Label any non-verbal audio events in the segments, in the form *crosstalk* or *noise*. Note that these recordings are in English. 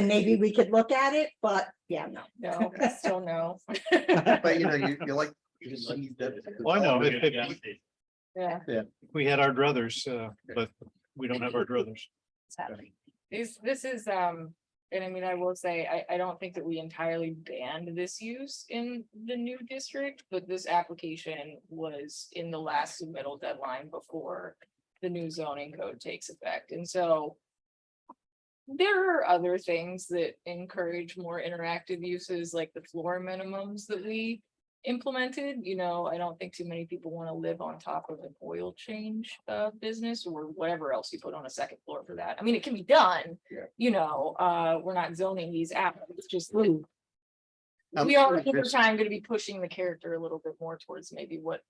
And maybe we could look at it, but yeah, no. No, I still no. *laughs* But you know, you, you like. *laughs* Well, I know, if, if Yeah, we had our druthers, uh, but we don't have our druthers. sadly. This, this is, um, and I mean, I will say, I, I don't think that we entirely banned this use in the new district, but this application was in the last submittal deadline before the new zoning code takes effect, and so there are other things that encourage more interactive uses, like the floor minimums that we implemented, you know, I don't think too many people want to live on top of an oil change uh business or whatever else you put on a second floor for that. I mean, it can be done. Yeah. You know, uh, we're not zoning these out, it's just we I'm are sure over this- time gonna be pushing the character a little bit more towards maybe what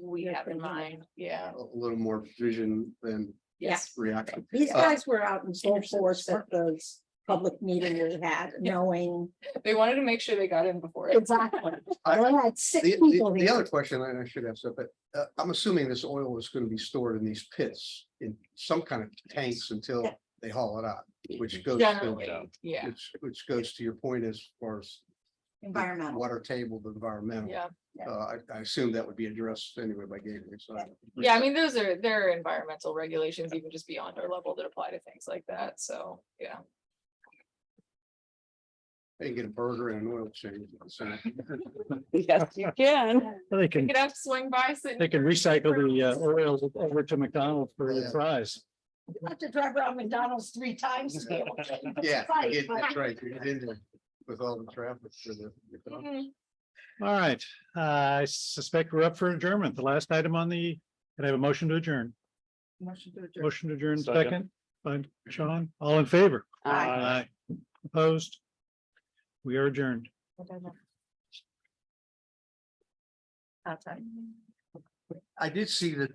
we You're have in thinking of. mind, yeah, A little more vision than yes. reaction. These Uh, guys were out in full force at those public meeting we had, knowing They wanted to make sure they got in before. it. exactly. I- They had six The, people the, the here. other question, and I should have said, but uh, I'm assuming this oil is gonna be stored in these pits in some kind of tanks until Yeah. they haul it out, which goes Generally, to, yeah, which, which goes to your point as far as the Environmental. Water table, the environmental. yeah. Yeah. Uh, I, I assume that would be addressed anyway by Gateway, so. Yeah, I mean, those are, there are environmental regulations even just beyond our level that apply to things like that, so, yeah. They can get a burger and an oil change. so. *laughs* Yes, you can. They can, You could have to swing by, sit. they can recycle the uh, oils over to McDonald's for the fries. I have to drive around McDonald's three times to be able to. get the *laughs* Yeah, site, it- but- that's right. you get in there With all the traffic for the. Mhm. All right, uh, I suspect we're up for adjournment. The last item on the, can I have a motion to adjourn? Motion to adjourn, Second. second, by Sean, all in favor? Aye. Aye. Opposed? We are adjourned. Outside. I did see that